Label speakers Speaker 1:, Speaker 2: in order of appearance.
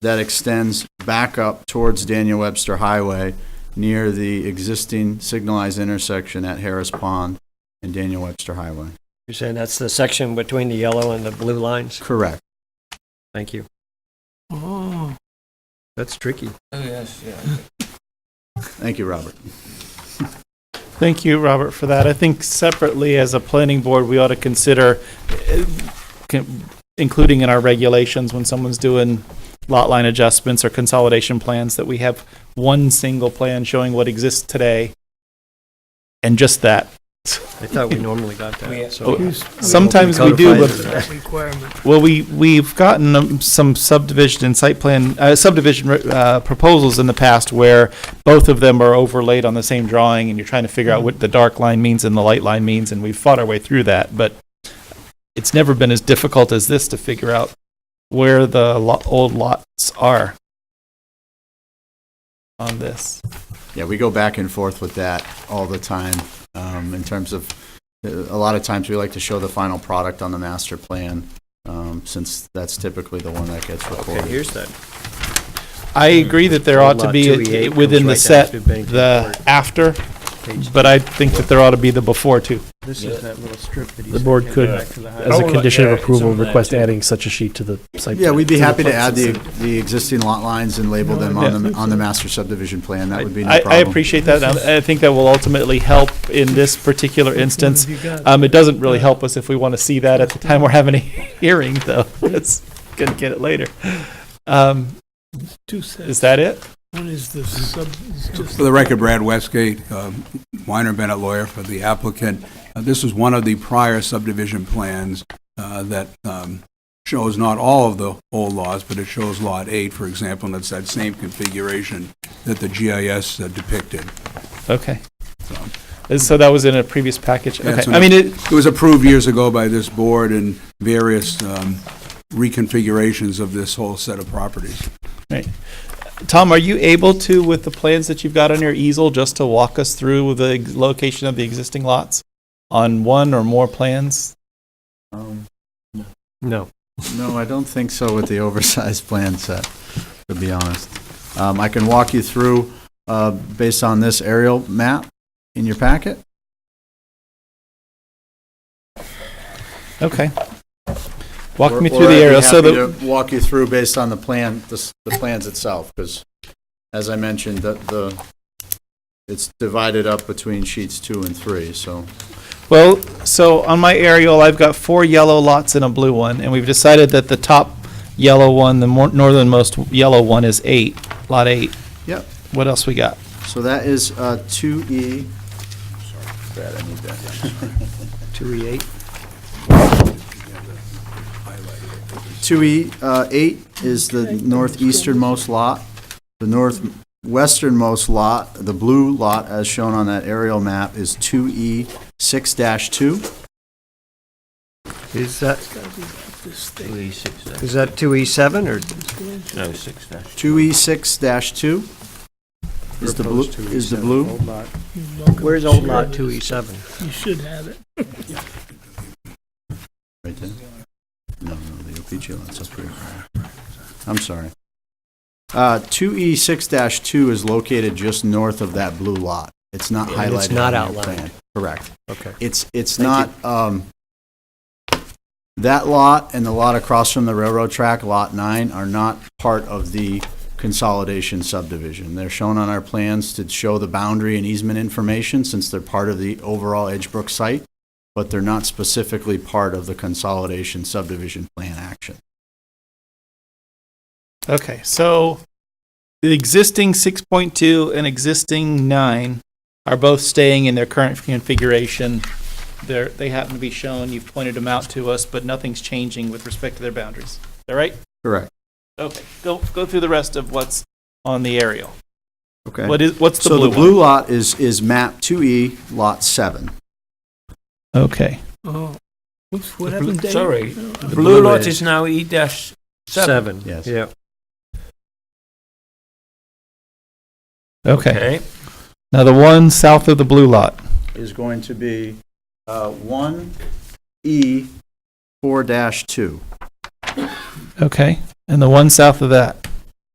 Speaker 1: that extends back up towards Daniel Webster Highway near the existing signalized intersection at Harris Pond and Daniel Webster Highway.
Speaker 2: You're saying that's the section between the yellow and the blue lines?
Speaker 1: Correct.
Speaker 2: Thank you. Oh. That's tricky.
Speaker 1: Thank you, Robert.
Speaker 3: Thank you, Robert, for that. I think separately, as a planning board, we ought to consider eh, con- including in our regulations when someone's doing lot line adjustments or consolidation plans, that we have one single plan showing what exists today and just that.
Speaker 2: I thought we normally got that, so.
Speaker 3: Oh, Sometimes we do, but
Speaker 4: Requirement.
Speaker 3: Well, we, we've gotten um, some subdivision and site plan, uh, subdivision uh, proposals in the past where both of them are overlaid on the same drawing and you're trying to figure
Speaker 2: Mm-hmm.
Speaker 3: out what the dark line means and the light line means, and we've fought our way through that, but it's never been as difficult as this to figure out where the lo- old lots are on this.
Speaker 1: Yeah, we go back and forth with that all the time um, in terms of, uh, a lot of times we like to show the final product on the master plan um, since that's typically the one that gets
Speaker 2: Okay,
Speaker 1: recorded.
Speaker 2: here's that.
Speaker 3: I agree that there ought to
Speaker 2: Mm-hmm. Lot
Speaker 3: be,
Speaker 2: 2E8
Speaker 3: a- within
Speaker 2: comes right
Speaker 3: the
Speaker 2: down
Speaker 3: set,
Speaker 2: through Bennington
Speaker 3: the
Speaker 2: Court.
Speaker 3: after,
Speaker 2: Page-
Speaker 3: but I think that there ought to be the before too.
Speaker 5: This is that little strip that he's.
Speaker 6: The board could, as a
Speaker 5: Oh,
Speaker 6: condition
Speaker 5: yeah,
Speaker 6: of
Speaker 5: it's
Speaker 6: approval,
Speaker 5: on that
Speaker 6: request
Speaker 5: too.
Speaker 6: adding such a sheet to the site.
Speaker 1: Yeah, we'd be
Speaker 6: the
Speaker 1: happy to
Speaker 6: plot
Speaker 1: add the,
Speaker 6: system.
Speaker 1: the existing lot lines and label them on the, on the master subdivision plan. That would be no
Speaker 3: I, I
Speaker 1: problem.
Speaker 3: appreciate that. and I think that will ultimately help in this particular instance. Um, it doesn't really help us if we want to see that at the time we're having a hearing, though. It's gonna get it later. Um,
Speaker 4: Two sets.
Speaker 3: is that it?
Speaker 4: One is the sub. is just-
Speaker 7: For the record, Brad Westgate, um, Weiner Bennett lawyer for the applicant. Uh, This is one of the prior subdivision plans uh, that um, shows not all of the old laws, but it shows Lot 8, for example, and it's that same configuration that the GIS uh, depicted.
Speaker 3: Okay. Uh, So that was in a previous package.
Speaker 7: That's
Speaker 3: Okay.
Speaker 7: an-
Speaker 3: I mean, it,
Speaker 7: It was approved years ago by this board in various um, reconfigurations of this whole set of properties.
Speaker 3: Tom, are you able to, with the plans that you've got on your easel, just to walk us through the ex- location of the existing lots on one or more plans?
Speaker 1: Um,
Speaker 2: No.
Speaker 1: No, I don't think so with the oversized plan set, to be honest. Um, I can walk you through, uh, based on this aerial map in your packet.
Speaker 3: Okay. Walk me
Speaker 1: Or- or I'd
Speaker 3: through the
Speaker 1: be
Speaker 3: area. So
Speaker 1: happy
Speaker 3: the,
Speaker 1: to Walk you through based on the plan, the, s- the plans itself, because as I mentioned, the, the, it's divided up between sheets two and three, so.
Speaker 3: Well, so on my aerial, I've got four yellow lots and a blue one, and we've decided that the top yellow one, the more northernmost yellow one is eight, lot eight.
Speaker 1: Yep.
Speaker 3: What else we got?
Speaker 1: So that is, uh, two E. Brad, I need that. E
Speaker 2: 2E8,
Speaker 1: Two E, uh, eight is the northeasternmost lot. The northwesternmost lot, the blue lot as shown on that aerial map is two E six dash two.
Speaker 2: is that? Is that 2E7 or?
Speaker 5: No, six dash.
Speaker 1: Two E six dash two is the blue,
Speaker 2: Proposed 2E7,
Speaker 1: is the blue.
Speaker 2: old lot.
Speaker 4: you're welcome
Speaker 2: Where's
Speaker 4: to
Speaker 2: old
Speaker 4: share
Speaker 2: lot E
Speaker 4: this.
Speaker 2: 2E7?
Speaker 4: You should have it.
Speaker 1: Right there? No, no, the OPG lots up here. I'm sorry. Uh, 2E6-2 is located just north of that blue lot. It's not
Speaker 2: And
Speaker 1: highlighted.
Speaker 2: it's not
Speaker 1: on your
Speaker 2: outlined.
Speaker 1: plan. Correct.
Speaker 2: Okay.
Speaker 1: It's, it's not,
Speaker 2: Thank
Speaker 1: um, that lot and the lot across from the railroad track, Lot 9, are not part of the consolidation subdivision. They're shown on our plans to show the boundary and easement information since they're part of the overall Edgebrook site but they're not specifically part of the consolidation subdivision plan action.
Speaker 3: Okay, so the existing six point two and existing nine are both staying in their current configuration. They're, they happen to be shown, you've pointed them out to us, but nothing's changing with respect to their boundaries. Is that right?
Speaker 1: Correct.
Speaker 3: Okay, go, go through the rest of what's on the aerial.
Speaker 1: Okay.
Speaker 3: What is, what's
Speaker 1: So
Speaker 3: the blue
Speaker 1: the
Speaker 3: one?
Speaker 1: blue lot is, is map 2E, lot 7.
Speaker 3: Okay.
Speaker 4: Oh, whoops,
Speaker 5: The
Speaker 4: what happened,
Speaker 5: blue-
Speaker 4: Dave?
Speaker 5: sorry.
Speaker 4: No.
Speaker 5: The blue lot
Speaker 2: is-
Speaker 5: is now E dash seven.
Speaker 2: Seven.
Speaker 1: Yes.
Speaker 2: Yeah.
Speaker 3: Okay.
Speaker 5: Okay.
Speaker 3: Now the one south of the blue lot.
Speaker 1: Is going to be uh, E 1E 4-2.
Speaker 3: Okay. And the one south of that.